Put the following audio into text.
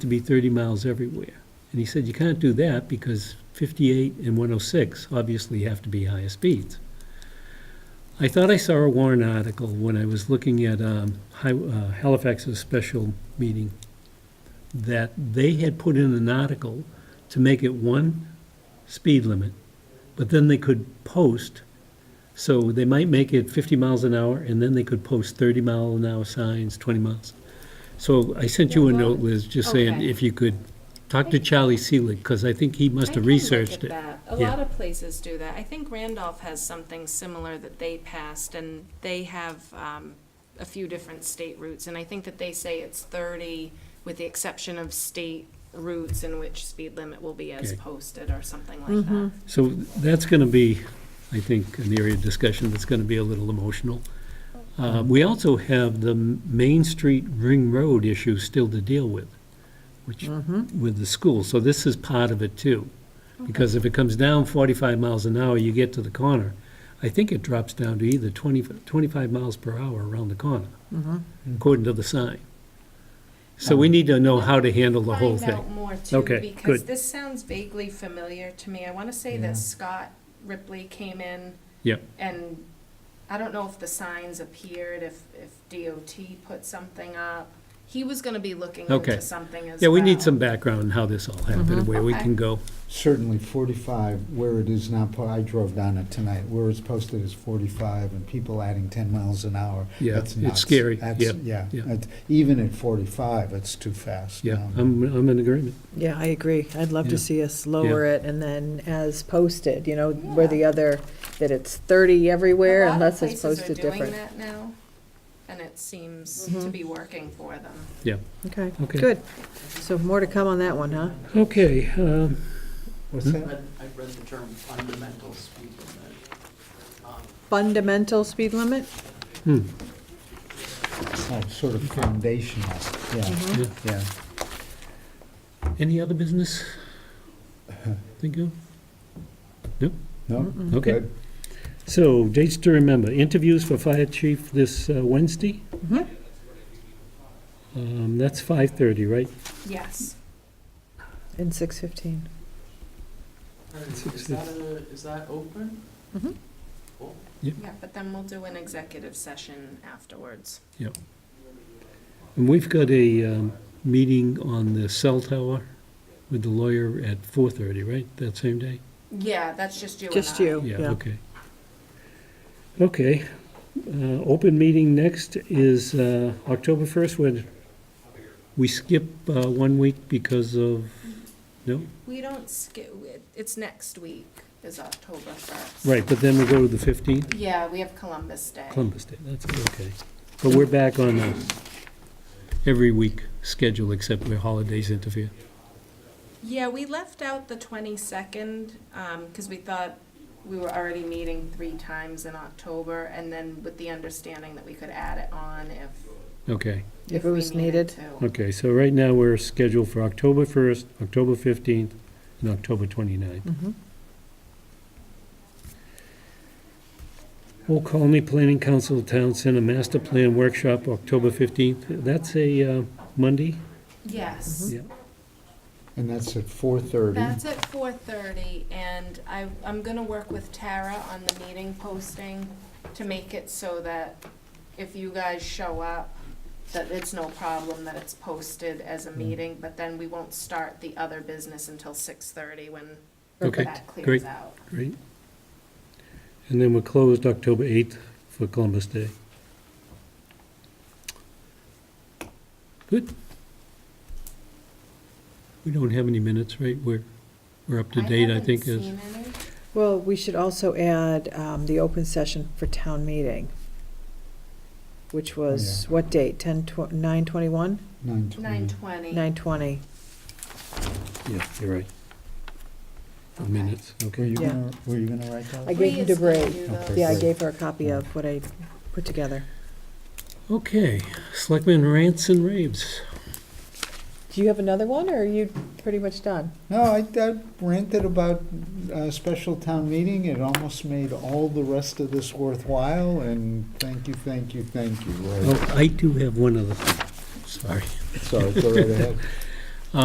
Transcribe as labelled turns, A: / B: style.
A: to be 30 miles everywhere. And he said, you can't do that because 58 and 106 obviously have to be higher speeds. I thought I saw a Warren article when I was looking at um, Hi- uh, Halifax's special meeting that they had put in an article to make it one speed limit, but then they could post, so they might make it 50 miles an hour, and then they could post 30 mile an hour signs, 20 miles. So I sent you a
B: Yeah, well,
A: note, Liz, just saying
B: okay.
A: if you could talk to Charlie Seelig, because I think he must have researched
B: I
A: it.
B: can look at that. A
A: Yeah.
B: lot of places do that. I think Randolph has something similar that they passed, and they have um, a few different state routes. And I think that they say it's 30, with the exception of state routes in which speed limit will be as
A: Okay.
B: posted or something like that.
A: So that's going to be, I think, an area of discussion that's going to be a little emotional. Uh, We also have the Main Street Ring Road issue still to deal with, which, with the school. So this is part of it too. Because if it comes down 45 miles an hour, you get to the corner. I think it drops down to either 20, 25 miles per hour around the corner, according to the sign. So we need to know how to handle the whole
B: Find out
A: thing.
B: more too,
A: Okay,
B: because
A: good.
B: this sounds vaguely familiar to me. I want to say
C: Yeah.
B: that Scott Ripley came in
A: Yeah,
B: and I don't know if the signs appeared, if, if DOT put something up. He was gonna be looking
A: Okay.
B: into something as
A: yeah,
B: well.
A: we need some background on how this all happened and where we
B: Okay.
A: can go.
C: Certainly 45, where it is not, po- I drove down it tonight, where it's posted as 45 and people adding 10 miles an hour.
A: Yeah,
C: that's
A: it's
C: nuts.
A: scary.
C: That's-
A: Yeah,
C: Yeah,
A: yeah.
C: It's- even at 45, it's too fast.
A: Yeah,
C: Um,
A: I'm, I'm in agreement.
D: Yeah, I agree. I'd love
A: Yeah.
D: to see us lower it and then as posted, you know, where the other, that it's 30 everywhere unless it's posted
B: A lot of places
D: different. Mm-hmm.
B: are doing that now, and it seems to be working for them.
A: Yeah,
D: Okay,
A: Okay.
D: good. So more to come on that one, huh?
A: okay, um,
C: What's that?
E: read, I read the term fundamental speed limit. Um,
D: Fundamental speed limit?
A: hmm, Mm-hmm.
C: Oh, Sort of foundational,
B: Mm-hmm.
C: yeah,
A: yeah.
C: yeah.
A: Any other business? Thank you.
C: No?
A: Okay.
C: Good.
A: So dates to remember, interviews for fire chief this uh, Wednesday?
D: Mhm.
A: Um, that's five thirty, right?
B: Yes.
D: In 615.
E: Is that a, is that open?
D: Mhm.
E: Cool.
B: Yeah, but then we'll do an executive session afterwards.
A: And we've got a, um, meeting on the cell tower with the lawyer at four thirty, right, that same day?
B: Yeah, that's just you and
D: Just
B: I.
D: you,
A: Yeah,
D: yeah.
A: okay. Okay, uh, open meeting next is, uh, October first, when we skip, uh, one week because of, no?
B: We don't skip, it's next week is October first.
A: Right, but then we go to the fifteenth,
B: Yeah, we have Columbus Day.
A: Columbus Day, that's okay. But we're back on a every week schedule except where holidays interfere.
B: Yeah, we left out the twenty-second, um, because we thought we were already meeting three times in October, and then with the understanding that we could add it on if,
A: Okay,
D: If
B: if
D: it
B: we
D: was
B: needed
D: needed.
B: to.
A: okay, so right now we're scheduled for October first, October fifteenth, and October twenty-ninth.
D: Mhm.
A: Old Colony Planning Council Town Center Master Plan Workshop, October 15th. That's a uh, Monday?
B: Yes.
A: Yeah.
C: And that's at 4:30.
B: That's at four thirty, and I, I'm gonna work with Tara on the meeting posting to make it so that if you guys show up, that it's no problem that it's posted as
A: Mm.
B: a meeting, but then we won't start the other business until six thirty when
A: Okay,
B: that clears
A: great.
B: out.
A: Great. And then we're closed October 8th for Columbus Day. Good. We don't have any minutes, right? We're, we're up to date, I think.
B: haven't
A: is-
B: seen any.
D: Well, we should also add um, the open session for town meeting, which was, what date? 10, 9:21?
C: 9:20.
B: Nine twenty.
D: 9:20.
A: Yeah, you're right. The minutes,
C: Were
A: okay.
C: you
D: Yeah.
C: gonna, were you gonna write
D: I
C: that?
D: gave him to Bree. Yeah, I
C: Great.
D: gave her a copy of what I put together.
A: Okay, Selectmen rants and raves.
D: Do you have another one, or are you pretty much done?
C: No, I I ranted about a special town meeting. It almost made all the rest of this worthwhile, and thank you, thank you, thank you. Larry.
A: Oh, I do have one other thing, sorry.
C: Sorry, go right ahead.